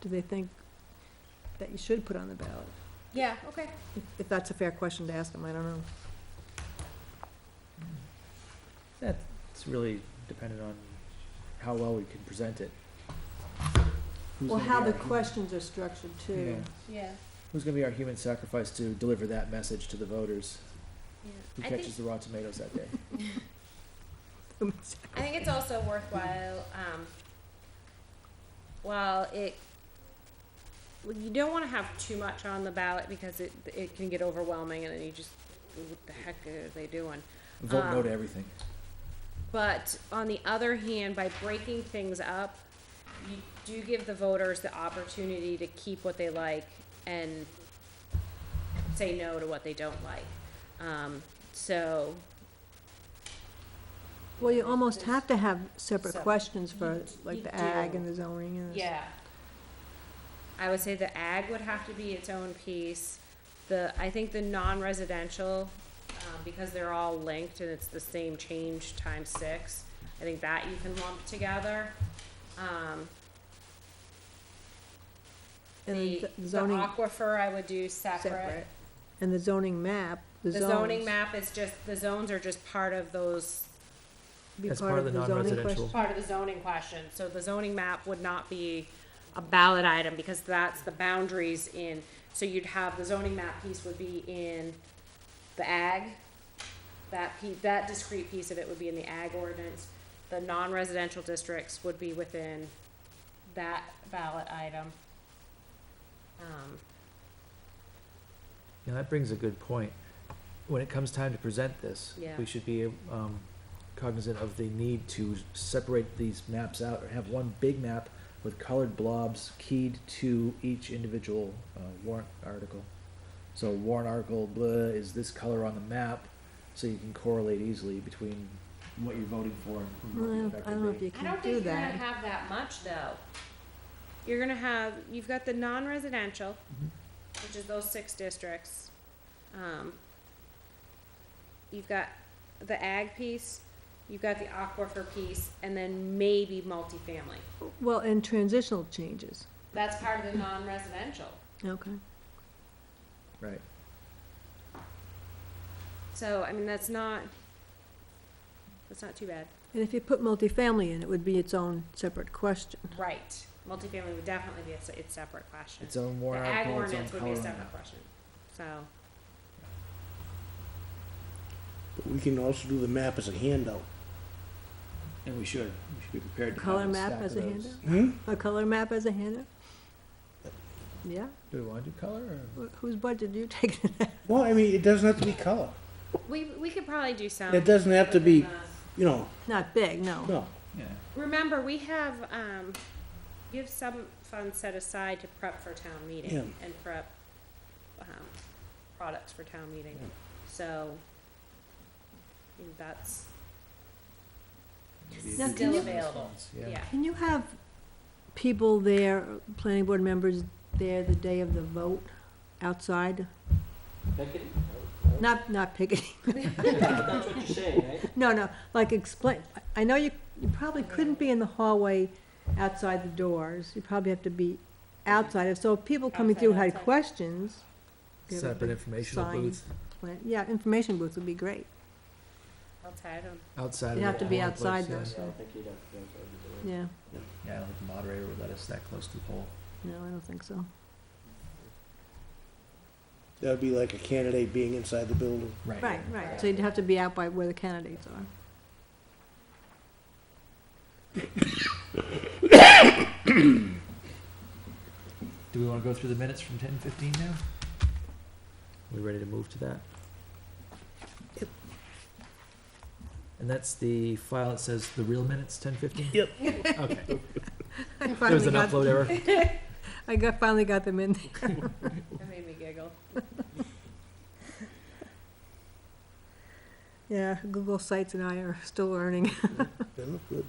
do they think that you should put on the ballot? Yeah, okay. If- If that's a fair question to ask them, I don't know. It's really dependent on how well we can present it. Who's Well, gonna how be the our hu- questions are structured too. Yeah. Yeah, Who's gonna be our human sacrifice to deliver that message to the voters? Who yeah. I think, catches the raw tomatoes that day? I think it's also worthwhile, um, while it, well, you don't wanna have too much on the ballot because it, it can get overwhelming and then you just, what the heck are they doing? Vote no Uh, Um, to everything. But on the other hand, by breaking things up, you do give the voters the opportunity to keep what they like and say no to what they don't like. Um, so, Well, you almost have to have separate Sep- questions for You- like you the ag do. and the zoning and. the- Yeah. I would say the ag would have to be its own piece. The, I think the non-residential, um, because they're all linked and it's the same change times six, I think that you can lump together. Um, And the, the the zoning aquifer I would do separate. separate. And the zoning map, the The zones. zoning map is just, the zones are just part of those, be As part of the zoning non-residential. question. part of the zoning question. So the zoning map would not be a ballot item because that's the boundaries in, so you'd have, the zoning map piece would be in the ag. That piece, that discrete piece of it would be in the ag ordinance. The non-residential districts would be within that ballot item. Um, Yeah, that brings a good point. When it comes time to present this, Yeah. we should be um, Cognizant of the need to separate these maps out or have one big map with colored blobs keyed to each individual uh, warrant article. So warrant article blah is this color on the map, so you can correlate easily between what you're voting for Well, I and who don't- the I don't know if you I can do don't think you're gonna that. have that much though. You're gonna have, you've got the non-residential, Mm-hmm. which is those six districts. Um, you've got the ag piece, you've got the aquifer piece, and then maybe multifamily. Well, and transitional changes, That's part of the non-residential. okay. Right. So, I mean, that's not, that's not too bad. And if you put multifamily in, it would be its own separate question. Right. Multifamily would definitely be a, se- its separate question. Uh-huh. Its own The warrant ag article, its own ordinance would be color a on the separate map. question, so. But We can also do the map as a handout. And we should, we should be prepared to have Color a map stack as of a those. handout? Hmm? A color map as a handout? Yeah, Do we want to do color or? Wh- whose budget do you take it out? Well, I mean, it doesn't have to be color. We, we could probably do some. It doesn't have to be, you know, Not big, no. no. Yeah. Remember, we have, um, you have some funds set aside to prep for town Yeah. meeting and prep, um, products for town meeting, Yeah. so. I mean, That's, Now, Still can you- available. yeah, Can you have people there, planning board members there the day of the vote outside? Not, not picketing. No, no, like explain, I- I know you, you probably couldn't be in the hallway outside the doors. You probably have to be outside. So if people coming through Outside, had outside. questions. you have a set up an big informational sign booth plan- Yeah, information booth would be great. outside of, outside of the uh, It'd have to be polling place, outside though, yeah. so, yeah, Yeah, I don't think the moderator would let us that close to the poll. no, I don't think so. That would be like a candidate being inside the building. Right, right, so you'd have to be out by where the candidates are. Do we wanna go through the minutes from ten fifteen now? We ready to move to that? And that's the file that says the real minutes, ten fifteen? Yep. Okay, there I was finally an got, upload error. I got, finally got them in. that made me giggle. Yeah, Google Sites and I are still learning. They look good.